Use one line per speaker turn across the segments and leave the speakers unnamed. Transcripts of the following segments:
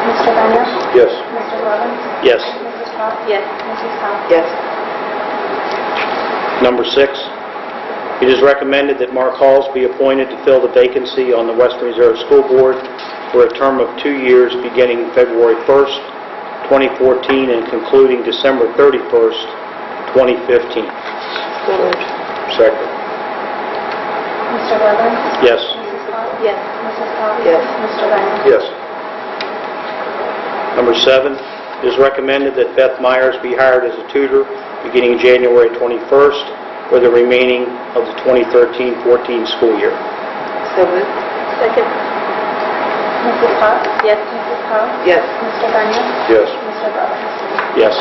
Mr. Daniel?
Yes.
Mr. Robbins?
Yes.
Mrs. Potts?
Yes.
Mrs. Powell?
Yes.
Number six, it is recommended that Mark Halls be appointed to fill the vacancy on the Western Reserve School Board for a term of two years beginning February 1st, 2014, and concluding December 31st, 2015.
So moved.
Second.
Mr. Robbins?
Yes.
Mrs. Potts?
Yes.
Mrs. Powell?
Yes.
Mr. Daniel?
Yes. Number seven, it is recommended that Beth Myers be hired as a tutor beginning January 21st for the remaining of the 2013-14 school year.
So moved.
Second.
Mrs. Potts?
Yes.
Mrs. Powell?
Yes.
Mr. Daniel?
Yes.
Mr. Robbins?
Yes.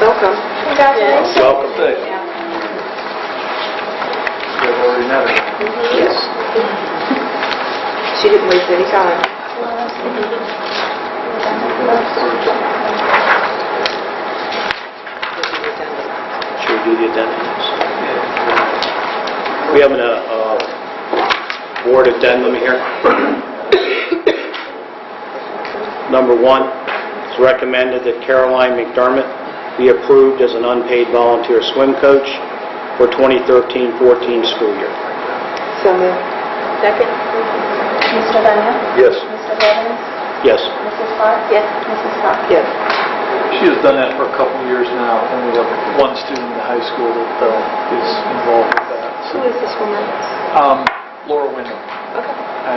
Welcome.
Congratulations.
Welcome.
Yes. She didn't waste any time.
Should we do the addendums? We have an uh, uh, board addendum here. Number one, it's recommended that Caroline McDermott be approved as an unpaid volunteer swim coach for 2013-14 school year.
So moved.
Second.
Mr. Daniel?
Yes.
Mr. Robbins?
Yes.
Mrs. Potts?
Yes.
Mrs. Powell?
Yes.
She has done that for a couple of years now, and we have one student in high school that uh, is involved with that. So,
Who is this woman?
um, Laura Wyndham.
Okay.
I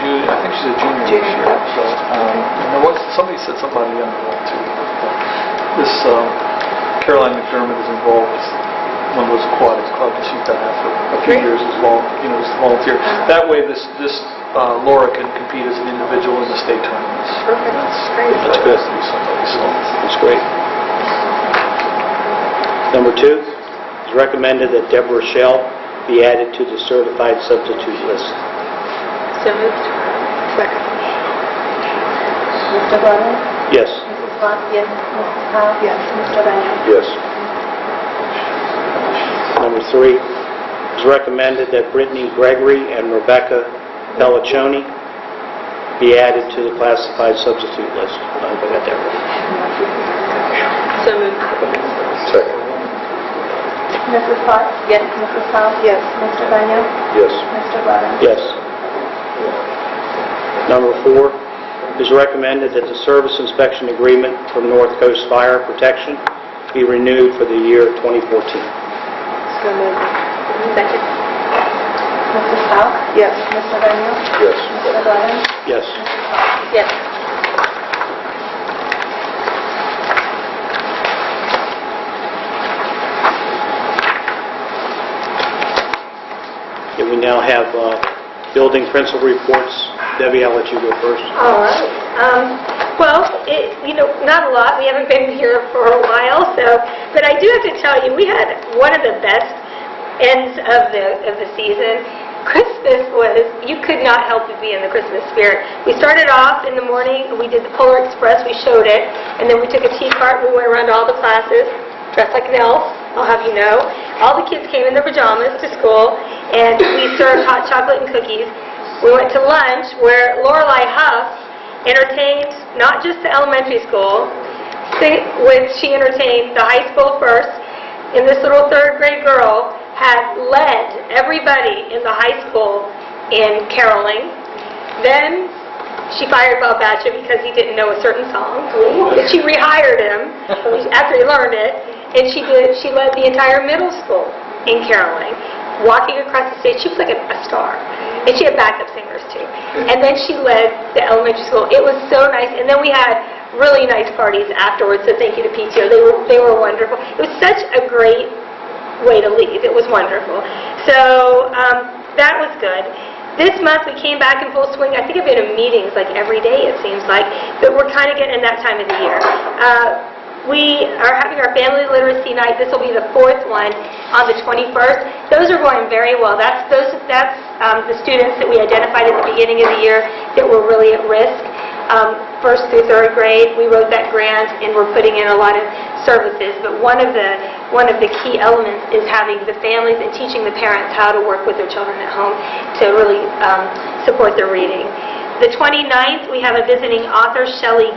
ju- I think she's a junior this
Junior.
year, so, um, and there was, somebody said something about a young girl too. but This um, Caroline McDermott is involved with one of those aquatics clubs, and she's done that for a few
Great. Uh-huh.
years as well, you know, as a volunteer. That way, this, this uh, Laura can compete as an individual in the state tournaments.
Perfect.
That's-
Great.
That's good. to be somebody, so.
That's great. Number two, it's recommended that Deborah Shell be added to the certified substitute list.
So moved.
Second.
Mr. Robbins?
Yes.
Mrs. Potts?
Yes.
Mrs. Powell?
Yes.
Mr. Daniel?
Yes. Number three, it's recommended that Brittany Gregory and Rebecca Pelliccioni be added to the classified substitute list. I hope I got that right.
So moved.
Second.
Mrs. Potts?
Yes.
Mrs. Powell?
Yes.
Mr. Daniel?
Yes.
Mr. Robbins?
Yes. Number four, it is recommended that the service inspection agreement from North Coast Fire Protection be renewed for the year 2014.
So moved.
Second.
Mrs. Powell?
Yes.
Mr. Daniel?
Yes.
Mr. Robbins?
Yes.
Yes.
Okay, We now have uh, building principal reports. Debbie, I'll let you go first.
All right. Um, Well, it, you know, not a lot, we haven't been here for a while, so, but I do have to tell you, we had one of the best ends of the, of the season. Christmas was, you could not help but be in the Christmas spirit. We started off in the morning, we did the Polar Express, we showed it, and then we took a tea cart, we went around to all the classes, dressed like an elf, I'll have you know. All the kids came in their pajamas to school, and we served hot chocolate and cookies. We went to lunch where Lorelei Huff entertained not just the elementary school, si- which she entertained the high school first, and this little third grade girl had led everybody in the high school in caroling. Then she fired Bob Batcha because he didn't know a certain song. She rehired him after he learned it, and she did. She led the entire middle school in caroling, walking across the stage. She was like a, a star, and she had backup singers too. And then she led the elementary school. It was so nice. And then we had really nice parties afterwards. So thank you to PTO. They were they were wonderful. It was such a great way to leave. It was wonderful. So um, that was good. This month we came back in full swing. I think I've been in meetings like every day it seems like, but we're kind of getting in that time of the year. Uh, we are having our family literacy night. This will be the fourth one on the 21st. Those are going very well. That's those that's um, the students that we identified at the beginning of the year that were really at risk um, first through third grade. We wrote that grant, and we're putting in a lot of services, but one of the, one of the key elements is having the families and teaching the parents how to work with their children at home to really um, support their reading. The 29th, we have a visiting author, Shelley